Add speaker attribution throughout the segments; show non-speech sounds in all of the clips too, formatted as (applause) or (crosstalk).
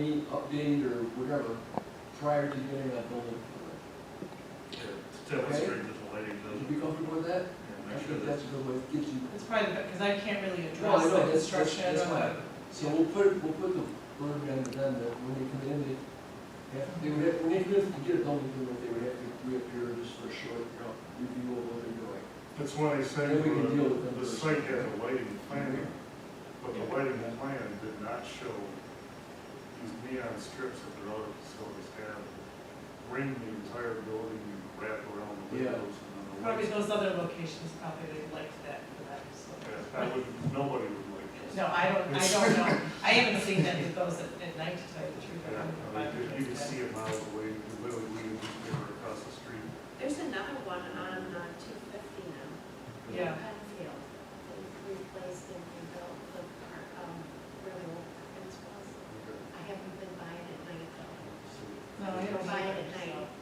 Speaker 1: date or whatever prior to getting that building
Speaker 2: Tell the street that the lady
Speaker 1: permit. Would
Speaker 2: doesn't,
Speaker 1: you be comfortable with that?
Speaker 2: and
Speaker 1: I
Speaker 2: make sure
Speaker 1: think
Speaker 2: that,
Speaker 1: that's a good way, it gives you,
Speaker 3: It's probably, because I can't really
Speaker 1: No, I
Speaker 3: address
Speaker 1: know,
Speaker 3: the
Speaker 1: that's- that's-
Speaker 3: construction.
Speaker 1: that's
Speaker 3: of
Speaker 1: fine.
Speaker 3: the-
Speaker 1: so we'll put, we'll put the burden on them that when they come in, they, have- they would have, when they come in to get a building permit, they would have to reappear just for a short, you know, review of what they're doing.
Speaker 2: that's why I say,
Speaker 1: Then we can deal with them
Speaker 2: the
Speaker 1: first.
Speaker 2: site has a lighting plan, but the lighting plan did not show these neon strips that their other facilities have, ring the entire building and wrap around the
Speaker 1: Yeah.
Speaker 2: windows and then the
Speaker 3: Probably
Speaker 2: lights.
Speaker 3: those other locations, probably they liked that for that.
Speaker 2: Yeah,
Speaker 3: so.
Speaker 2: I would, nobody would like this.
Speaker 3: No, I don't, I don't know. I haven't seen any of those at, at night, to tell you the truth. I
Speaker 2: Yeah,
Speaker 3: don't know
Speaker 2: I mean,
Speaker 3: if I've
Speaker 2: You can
Speaker 3: noticed
Speaker 2: see it miles away, you can literally leave the river across the street.
Speaker 4: There's another one on uh, two fifty now.
Speaker 3: Yeah.
Speaker 4: Penfield, they replaced and rebuilt the park, um, really old fence was. I haven't been by it at night though.
Speaker 3: No, I
Speaker 4: I
Speaker 3: don't
Speaker 4: don't buy it
Speaker 3: either,
Speaker 4: at night.
Speaker 3: that.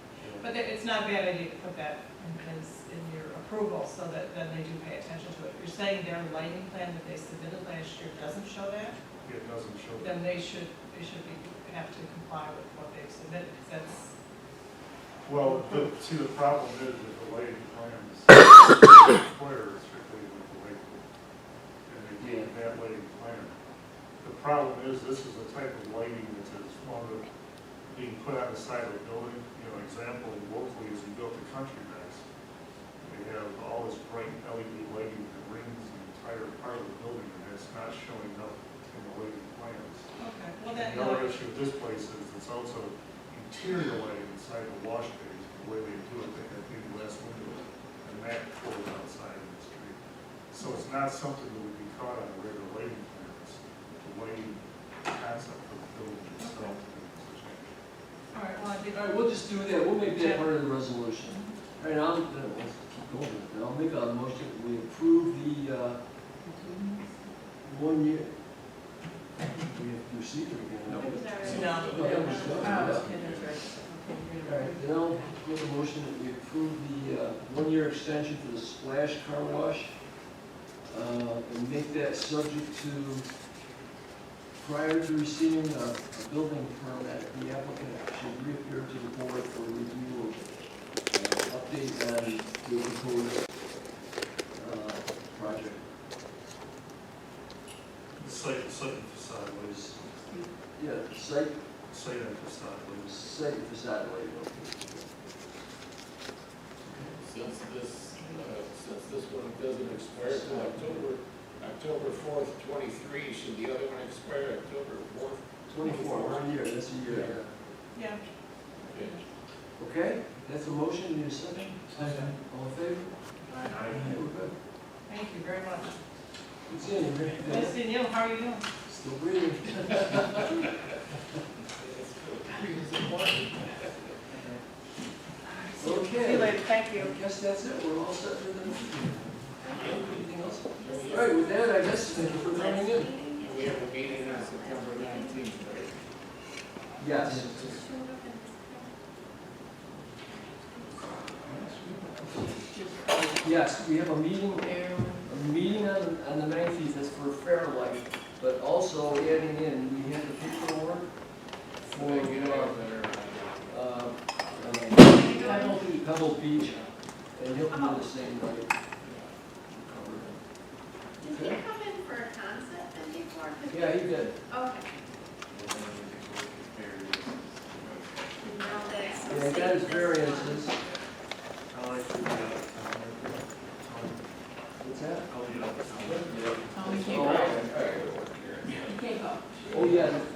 Speaker 3: But it- it's not a bad idea to put that in place in your approval, so that then they do pay attention to it. If you're saying their lighting plan that they submitted last year doesn't show that,
Speaker 2: It doesn't show.
Speaker 3: then they should, they should be, have to comply with what they've submitted, 'cause that's
Speaker 2: Well, the, see, the problem is that the lighting plans (coughs) require strictly with the light pole. And they gave that lighting plan. The problem is, this is the type of lighting that's as fond of being put on the side of a building. You know, example, locally, is we built the country house. They have all this bright LED lighting that rings the entire part of the building, and it's not showing up in the lighting plans.
Speaker 3: Okay, well then,
Speaker 2: The
Speaker 3: no,
Speaker 2: other issue with this place is it's also interior lighting inside the wash bays, the way they do it, they have big glass windows, and that pulls outside in the street. So it's not something that would be caught on a regular lighting plan, it's the lighting concept of the building itself.
Speaker 3: all right, well, I think,
Speaker 1: All right, we'll just do that, we'll make that part of the resolution. All right, I'll, uh, let's keep going, with it. I'll make a motion, that we approve the, uh, one year. We have to receive it again.
Speaker 4: It was already-
Speaker 3: No.
Speaker 1: No, that was done.
Speaker 3: Oh,
Speaker 1: Yeah. All right, then I'll make a motion that we approve the, uh, one-year extension for the splash car wash. Uh, and make that subject to, prior to receiving a, a building permit, the applicant should reappear to the board for review of, uh, update on the proposed, uh, project.
Speaker 2: Site, site and facade lights,
Speaker 1: Yeah, site,
Speaker 2: site and facade lights.
Speaker 1: site facade layout.
Speaker 5: Since this, uh, since this one doesn't expire till October, October fourth, twenty-three, should the other one expire October fourth?
Speaker 1: Twenty-four, one year, that's a year, yeah.
Speaker 3: yeah,
Speaker 1: Okay, that's a motion, need a second? All in favor? Okay, we're good.
Speaker 3: thank you very much.
Speaker 1: Good seeing you, Rick.
Speaker 3: Nice seeing you, how are you doing?
Speaker 1: Still breathing.
Speaker 3: (laughs) See you
Speaker 1: Okay.
Speaker 3: later, thank
Speaker 1: I
Speaker 3: you.
Speaker 1: guess that's it, we're all set for the meeting. Anything else? All right, with that, I guess, thank you for coming in.
Speaker 5: We have a meeting on September nineteenth, right?
Speaker 1: Yes. Yes, we have a meeting, a meeting on, on the nineteenth, that's for Fairlight, but also adding in, we have the paperwork
Speaker 5: So they get
Speaker 1: for, uh,
Speaker 5: out there.
Speaker 1: uh, Pebble Beach, Pebble Beach, and he'll come in the same night.
Speaker 4: Did he come in for a concept then before? 'Cause-
Speaker 1: Yeah, he did.
Speaker 4: Okay, and now that's.
Speaker 1: Yeah, he got his
Speaker 4: this one.
Speaker 1: variances.
Speaker 2: I like to be out of town.
Speaker 1: What's that?
Speaker 2: I'll be out of town.
Speaker 1: Oh, okay. Oh, yeah,